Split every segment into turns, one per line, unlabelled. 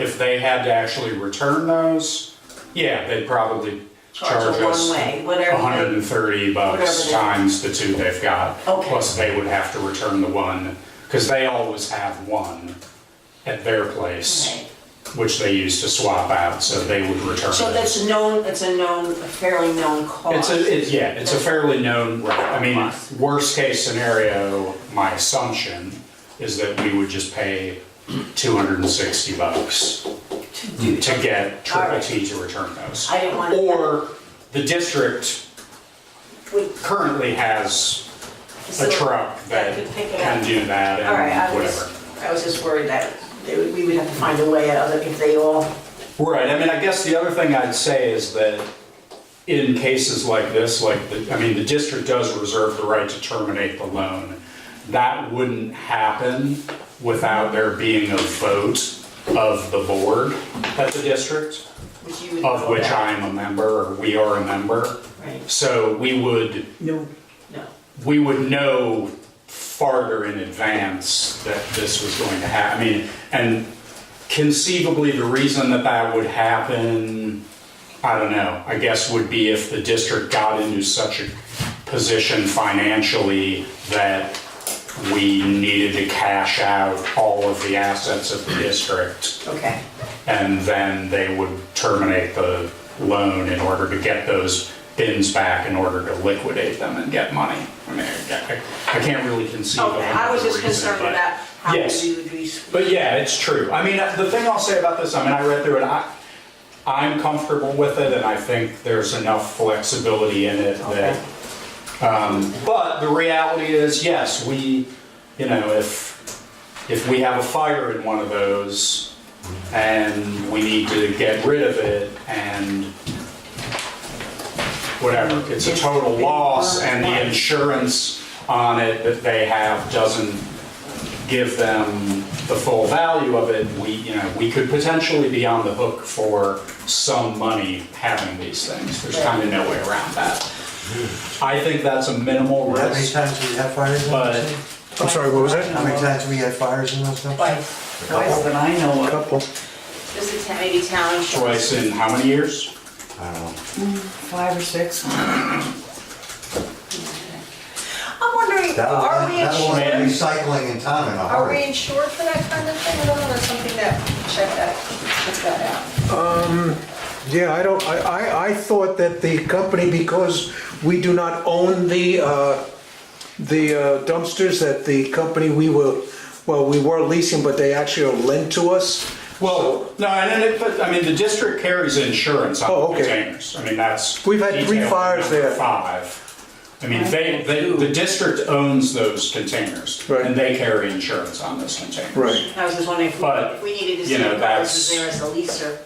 if they had to actually return those, yeah, they'd probably
Charge
charge
a
us
one-way, whatever. they-
130 bucks
Whatever they-
times the two they've got.
Okay.
Plus they would have to return the one, because they always have one at their place,
Okay.
which they use to swap out, so they would return it.
So that's a known, it's a known, a fairly known cost.
It's a, it, yeah, it's a fairly known, right, I mean, worst case scenario, my assumption is that we would just pay two hundred and sixty bucks to get Triple T to return those.
I didn't wanna-
Or the district
Would-
currently has a
facility
truck that
could pick it
can
up.
do that
All right, I
and
was,
whatever.
I was just worried that they would- we would have to find a way out of it if they all,
Right, I mean, I guess the other thing I'd say is that in cases like this, like, the- I mean, the district does reserve the right to terminate the loan. That wouldn't happen without there being a vote of the board at the district,
which you would.
of
know
which
about.
I am a member, or we are a member.
Right,
So we would,
no, no.
we would know farther in advance that this was going to happen. I mean, and conceivably, the reason that that would happen, I don't know, I guess would be if the district got into such a position financially that we needed to cash out all of the assets of the district,
Okay,
and then they would terminate the loan in order to get those bins back in order to liquidate them and get money. I mean, I I can't really conceive of
okay, I was just
another reason,
concerned
but-
about how
Yes.
we would be.
but yeah, it's true. I mean, the thing I'll say about this, I mean, I read through it. I, I'm comfortable with it, and I think there's enough flexibility in it that. Um, but the reality is, yes, we, you know, if if we have a fire in one of those and we need to get rid of it and whatever, it's a total loss, and the insurance on it that they have doesn't give them the full value of it, we, you know, we could potentially be on the hook for some money having these things. There's kind of no way around that. I think that's a minimal
How many
risk,
times we had fires in
But-
those? things?
I'm sorry, what was
How
that?
many times we had fires in those? things?
Twice,
Couple.
twice that I know of.
Couple.
This is maybe town insurance.
twice in how many years?
I don't know.
five or six.
I'm wondering,
That will,
are we
that will
insured?
make recycling in town in a
Are we
hurry.
insured for that kind of thing at all, or something that, check that, check that out?
Yeah, I don't, I, I, I thought that the company, because we do not own the, uh, the uh, dumpsters, that the company we were, well, we were leasing, but they actually are lent to us.
Well, no, and then, it- but, I mean, the district carries insurance
Oh,
on
okay.
containers. I mean, that's.
We've had three
detailed in
fires
number
there.
Five. I mean, they, they, the district owns those containers.
Right.
And they carry insurance on those containers.
I was just wondering if we-
But,
if we needed to
you
see
know,
if ours was
that's-
there as a leaser,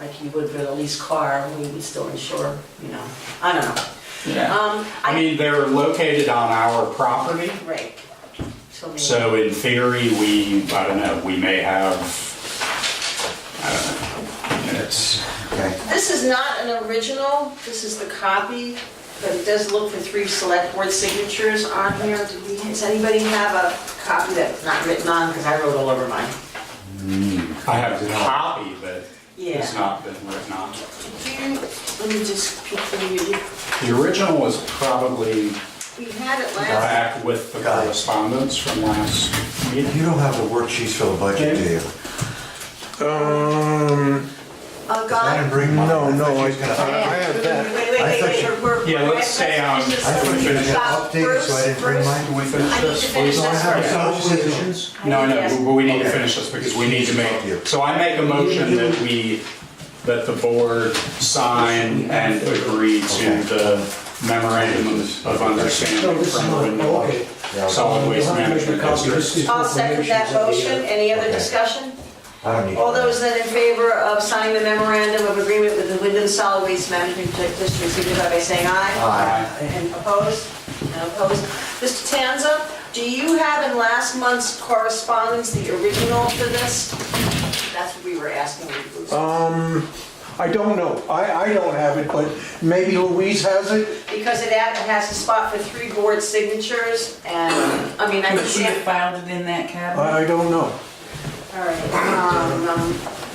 like you would for the leased car, we would still insure, you know, I don't know.
Yeah.
Um,
I mean, they're located on our property.
Right. So maybe-
So in theory, we, I don't know, we may have, I don't know, minutes.
Okay.
This is not an original, this is the copy, but it does look for three select board signatures on here. Do we- Does anybody have a copy that's not written on, because I wrote all over mine?
I have a copy, but it's
Yeah.
not been written on.
Do you, let me just peek through you.
The original was probably
We had it last,
back with the correspondence from last meeting.
You don't have the worksheets for the budget, do you?
Um,
oh,
I
God.
didn't bring mine.
no, no,
I
I,
thought you
I
was gonna-
I have that.
Wait, wait, wait,
I
wait,
thought
we're- we're.
Yeah,
we're-
let's stay on-
just
I thought you were gonna
Stop,
update it so I
Bruce,
didn't bring
Bruce.
mine.
Can we finish
I need to
this,
finish
please?
So I
this
have
first.
some
Positions.
No, no, but we need to
Okay.
finish this because we need to make, so I make a motion that we, that the board sign and agree to the memorandum of understanding from the
Okay.
Solid Waste Management District.
I'll second that motion. Any other
Okay.
discussion?
I don't need.
All those that in favor of signing the memorandum of agreement with the Wyndham Solid Waste Management District, signify by saying aye.
Aye.
And opposed? And opposed. Mr. Tanza, do you have in last month's correspondence the original for this? That's what we were asking you. Bruce.
I don't know, I, I don't have it, but maybe Louise has it?
Because it ad- it has a spot for three board signatures and, I mean, I
She
can't.
filed it in that cabinet.
I, I don't know.
All right, um, um,